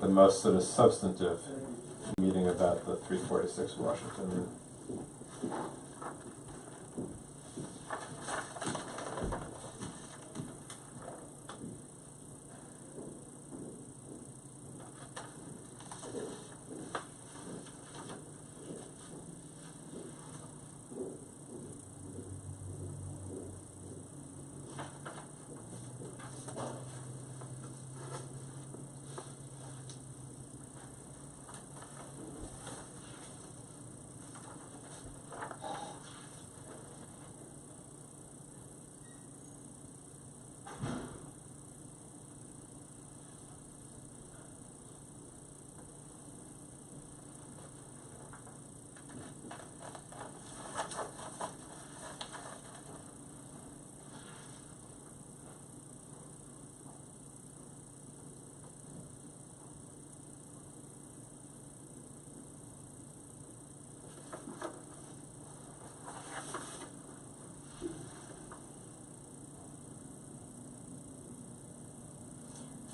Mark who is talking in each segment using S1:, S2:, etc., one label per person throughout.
S1: the most sort of substantive meeting about the three forty-six Washington.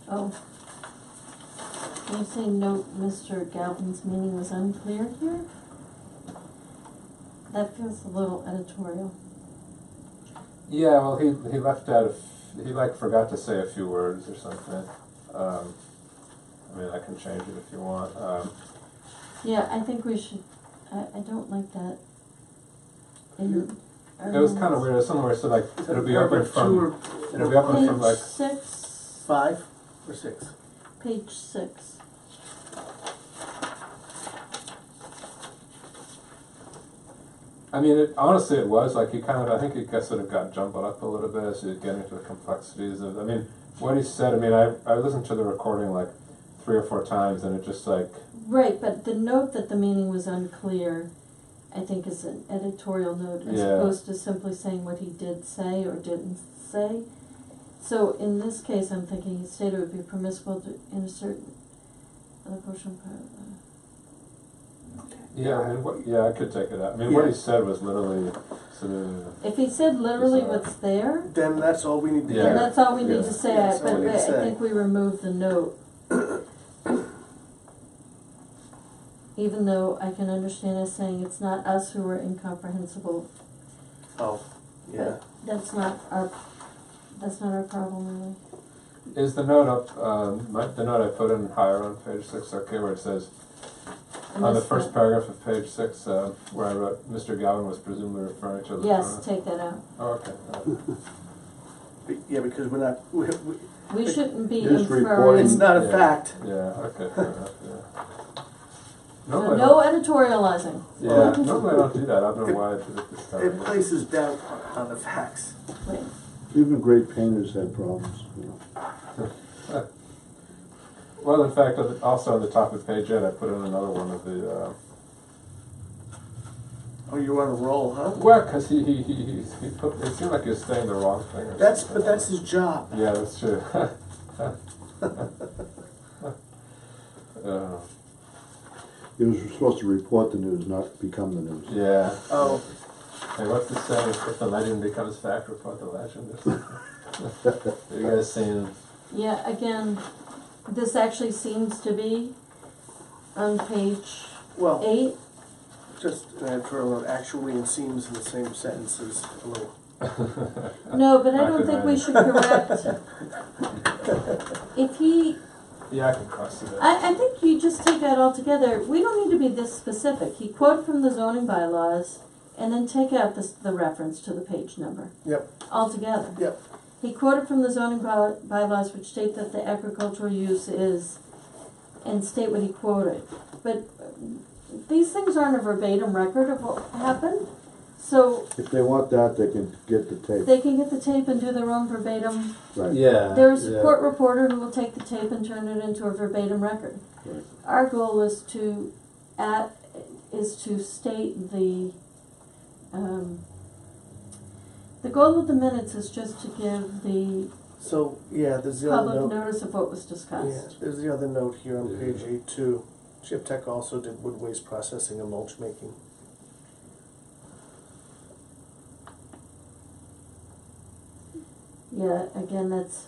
S2: Oh. Can you say note, Mr. Galvin's meaning was unclear here? That feels a little editorial.
S1: Yeah, well, he, he left out, a f- he like forgot to say a few words or something. Um, I mean, I can change it if you want. Um,
S2: Yeah, I think we should, I, I don't like that. in our
S1: It was kind of
S3: Um,
S2: minutes.
S1: weird, somewhere, so like, it'll be open
S3: Paragraph two
S1: from,
S3: or
S1: it'll be open from like,
S2: Page six,
S3: five or six?
S2: page six.
S1: I mean, it, honestly, it was like, he kind of, I think he got, sort of got jumbled up a little bit as you get into the complexities of, I mean, what he said, I mean, I, I listened to the recording like three or four times and it just like,
S2: Right, but the note that the meaning was unclear, I think is an editorial note as
S1: Yeah.
S2: opposed to simply saying what he did say or didn't say. So in this case, I'm thinking he stated it would be permissible to insert other portion of uh, the-
S1: yeah, and what, yeah, I could take it out. I mean, what he
S3: Yeah.
S1: said was literally sort of,
S2: If he said literally
S1: Bizarre.
S2: what's there,
S3: Then that's all we need to do.
S1: Yeah.
S2: then that's all we need
S1: Yeah.
S2: to say,
S3: Yeah,
S2: I-
S3: that's all
S2: but
S3: we
S2: I
S3: need to say.
S2: think we remove the note. Even though I can understand us saying it's not us who are incomprehensible
S3: Oh, yeah.
S2: That's not our, that's not our problem, really.
S1: is the note up, um, my, the note I put in higher on page six, okay, where it says, on the
S2: Unless
S1: first
S2: the-
S1: paragraph of page six, uh, where I wrote, Mr. Gowan was presumably referring to the.
S2: Yes, take that out.
S1: Oh, okay.
S3: Be- Yeah, because we're not, we, we,
S2: We shouldn't be
S4: Just report
S2: inferring,
S3: it's
S2: so
S3: not a
S1: Yeah.
S3: fact.
S1: Yeah, okay, fair enough, yeah. Normally I
S2: no
S1: don't-
S2: editorializing.
S1: Yeah, normally I don't do that, I don't know why I did it this time.
S3: It places doubt on the facts.
S2: Wait,
S4: Even great painters had problems, you know.
S1: Well, in fact, on the- also on the top of page eight, I put in another one of the, uh,
S3: Oh, you're on a roll, huh?
S1: well, cause he, he, he, he, he put, it seemed like he was saying the wrong thing or
S3: That's,
S1: something.
S3: but that's his job.
S1: Yeah, that's true. Uh,
S4: It was supposed to report the news, not become the news.
S1: Yeah.
S3: Oh,
S1: Hey, what's the saying? If the legend becomes fact, report the legend. or something? you guys seen?
S2: yeah, again, this actually seems to be on page
S3: well,
S2: eight.
S3: just uh, an editorial note, actually and seems in the same sentences, a little.
S1: uh,
S2: No, but I don't think we should correct. If he,
S1: Yeah, I can cross it out.
S2: I, I think you just take that all together. We don't need to be this specific. He quoted from the zoning bylaws and then take out this, the reference to the page number
S3: Yep,
S2: altogether.
S3: yep,
S2: He quoted from the zoning by- bylaws which state that the agricultural use is, and state what he quoted. But um, these things aren't a verbatim record of what happened, so
S4: If they want that, they can get the tape,
S2: they can get the tape and do their own verbatim.
S4: right?
S1: Yeah.
S2: They're a support reporter who will take the tape and turn it into a verbatim record.
S4: Right.
S2: Our goal is to at, is to state the, um, the goal of the minutes is just to give the
S3: so, yeah, there's the other
S2: public
S3: note.
S2: notice of what was
S3: Yeah,
S2: discussed.
S3: there's the other note here on
S1: Yeah.
S3: page eight too. Chip Tech also did wood waste processing and mulch making.
S2: Yeah, again, that's